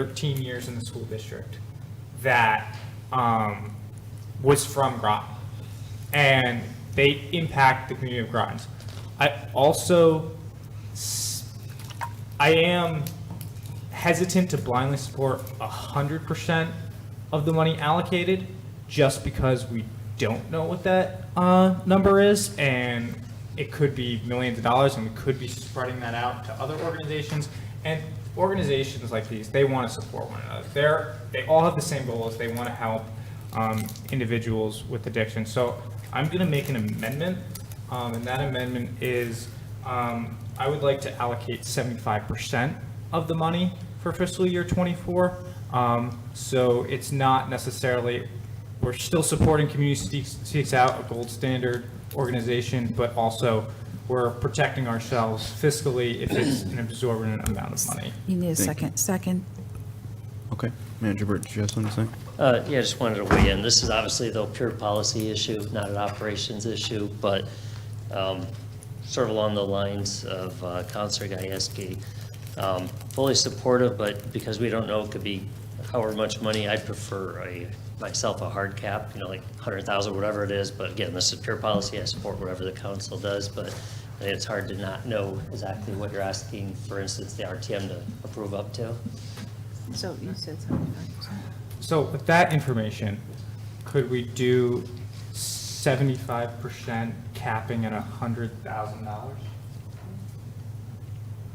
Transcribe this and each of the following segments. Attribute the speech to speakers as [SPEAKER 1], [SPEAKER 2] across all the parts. [SPEAKER 1] 13 years in the school district that um, was from Groton. And they impact the community of Groton. I also, s- I am hesitant to blindly support 100% of the money allocated just because we don't know what that uh, number is. And it could be millions of dollars and we could be spreading that out to other organizations. And organizations like these, they want to support one another. They're, they all have the same goals. They want to help um, individuals with addiction. So I'm going to make an amendment. Um, and that amendment is um, I would like to allocate 75% of the money for fiscal year '24. So it's not necessarily, we're still supporting Community Seeks- Seeks Out, a gold standard organization, but also we're protecting ourselves fiscally if it's an absorbent amount of money.
[SPEAKER 2] You need a
[SPEAKER 3] Thank you.
[SPEAKER 2] second, second.
[SPEAKER 3] Okay, Manager Bird, did you have something to say?
[SPEAKER 4] Uh, Yeah, I just wanted to weigh in. This is obviously the pure policy issue, not an operations issue, but um, sort of along the lines of uh, Counselor Gieske. Um, Fully supportive, but because we don't know, it could be however much money, I'd prefer a, myself, a hard cap, you know, like 100,000, whatever it is. But again, this is pure policy. I support whatever the council does, but I think it's hard to not know exactly what you're asking, for instance, the RTM to approve up to.
[SPEAKER 2] So you said something.
[SPEAKER 1] So with that information, could we do 75% capping at $100,000?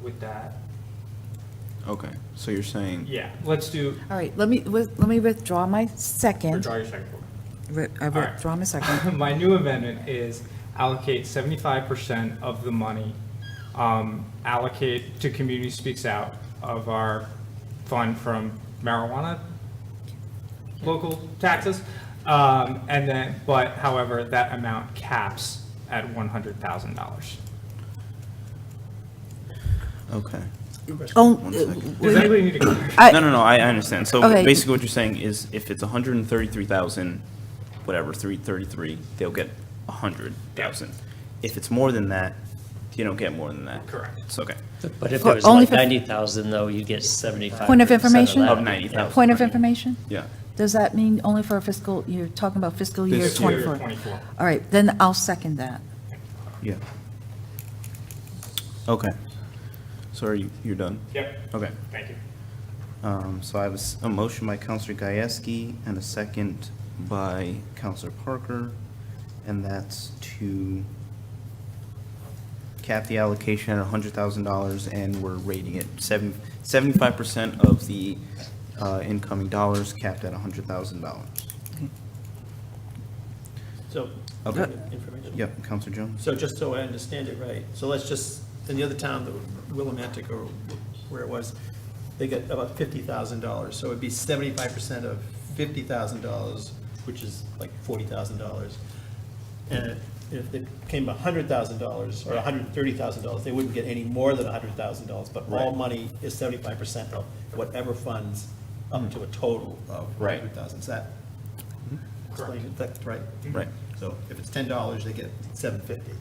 [SPEAKER 1] With that?
[SPEAKER 3] Okay, so you're saying,
[SPEAKER 1] Yeah, let's do,
[SPEAKER 2] All right, let me, with- let me withdraw my second.
[SPEAKER 1] withdraw your second one.
[SPEAKER 2] Re- I
[SPEAKER 1] All right.
[SPEAKER 2] withdraw my second.
[SPEAKER 1] My new amendment is allocate seventy-five percent of the money, um, allocate to Community Speaks Out of our fund from marijuana, local taxes, um, and then, but however, that amount caps at one hundred thousand dollars.
[SPEAKER 3] okay.
[SPEAKER 2] Oh,
[SPEAKER 3] One
[SPEAKER 2] uh,
[SPEAKER 3] second.
[SPEAKER 1] Does
[SPEAKER 2] wait,
[SPEAKER 1] anybody need to?
[SPEAKER 2] I-
[SPEAKER 3] No, no, no, I I understand. So
[SPEAKER 2] Okay.
[SPEAKER 3] basically what you're saying is if it's 133,000, whatever, 333, they'll get 100,000. If it's more than that, you don't get more than that.
[SPEAKER 1] Correct.
[SPEAKER 3] It's okay.
[SPEAKER 4] But if
[SPEAKER 2] For
[SPEAKER 4] it was
[SPEAKER 2] only
[SPEAKER 4] like
[SPEAKER 2] for-
[SPEAKER 4] 90,000 though, you get 75.
[SPEAKER 2] Point of information?
[SPEAKER 3] Of 90,000.
[SPEAKER 2] uh, point of information?
[SPEAKER 3] Yeah.
[SPEAKER 2] Does that mean only for fiscal, you're talking about fiscal year
[SPEAKER 3] This year.
[SPEAKER 2] 24?
[SPEAKER 1] Twenty-four.
[SPEAKER 2] All right, then I'll second that.
[SPEAKER 3] Yeah. Okay. So are you, you're done?
[SPEAKER 1] Yep,
[SPEAKER 3] Okay.
[SPEAKER 1] thank you.
[SPEAKER 3] Um, So I have a s- a motion by Counselor Gieske and a second by Counselor Parker, and that's to cap the allocation at $100,000, and we're rating it seven- 75% of the uh, incoming dollars capped at $100,000.
[SPEAKER 5] So,
[SPEAKER 3] Okay.
[SPEAKER 5] information.
[SPEAKER 3] Yep, Counselor Jones?
[SPEAKER 5] So just so I understand it right, so let's just, in the other town, the Willimantic or where it was, they get about fifty thousand dollars, so it'd be seventy-five percent of fifty thousand dollars, which is like forty thousand dollars. And if they came a hundred thousand dollars or a hundred and thirty thousand dollars, they wouldn't get any more than a hundred thousand dollars, but all
[SPEAKER 3] Right.
[SPEAKER 5] money is seventy-five percent of whatever funds up to a total of
[SPEAKER 3] Right.
[SPEAKER 5] hundred thousand, is that? explain it? That's right?
[SPEAKER 3] Right.
[SPEAKER 5] So if it's ten dollars, they get seven fifty.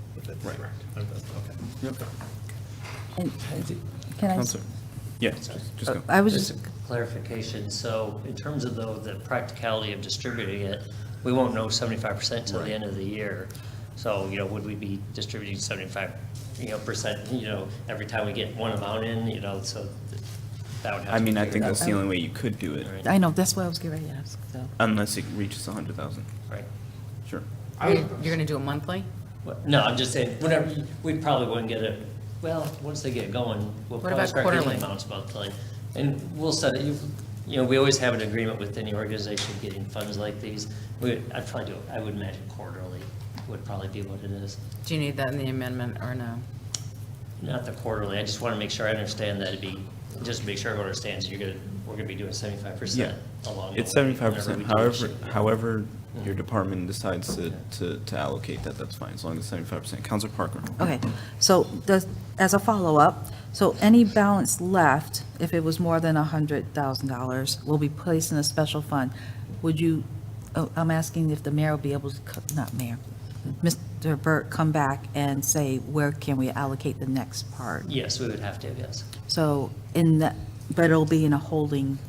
[SPEAKER 3] Right.
[SPEAKER 5] Okay.
[SPEAKER 2] And Can I, s-
[SPEAKER 3] Counselor? Yeah, just just go.
[SPEAKER 2] I was
[SPEAKER 4] Just
[SPEAKER 2] just,
[SPEAKER 4] a clarification, so in terms of though the practicality of distributing it, we won't know seventy-five percent till the end of the year. So, you know, would we be distributing seventy-five, you know, percent, you know, every time we get one amount in, you know, so th- that would have to
[SPEAKER 3] I
[SPEAKER 4] be
[SPEAKER 3] mean, I
[SPEAKER 4] figured
[SPEAKER 3] think
[SPEAKER 4] out.
[SPEAKER 3] that's the only way you could do it,
[SPEAKER 4] Right,
[SPEAKER 2] I know, that's what I was getting ready to ask, so.
[SPEAKER 3] unless it reaches 100,000.
[SPEAKER 4] Right.
[SPEAKER 3] Sure.
[SPEAKER 1] I
[SPEAKER 6] You're
[SPEAKER 1] would-
[SPEAKER 6] going to do it monthly?
[SPEAKER 4] What- No, I'm just saying, whenever, you- we probably wouldn't get it, well, once they get going, we'll
[SPEAKER 6] What
[SPEAKER 4] probably
[SPEAKER 6] about
[SPEAKER 4] start getting
[SPEAKER 6] quarterly?
[SPEAKER 4] amounts monthly. And we'll set it, you- you know, we always have an agreement with any organization getting funds like these. We, I'd probably do, I would imagine quarterly would probably be what it is.
[SPEAKER 6] Do you need that in the amendment or no?
[SPEAKER 4] Not the quarterly, I just want to make sure I understand that it'd be, just to make sure everyone understands, you're gonna, we're gonna be doing seventy-five percent along the way.
[SPEAKER 3] It's seventy-five
[SPEAKER 4] whenever we
[SPEAKER 3] percent,
[SPEAKER 4] do this
[SPEAKER 3] however,
[SPEAKER 4] shit.
[SPEAKER 3] however your department decides to, to, to allocate that, that's fine, as long as seventy-five percent. Counselor Parker?
[SPEAKER 2] Okay, so does, as a follow-up, so any balance left, if it was more than $100,000, will be placed in a special fund. Would you, oh, I'm asking if the mayor will be able to, co- not mayor, Mr. Burt, come back and say, where can we allocate the next part?
[SPEAKER 4] Yes, we would have to, yes.
[SPEAKER 2] So in, the- but it'll be in a holding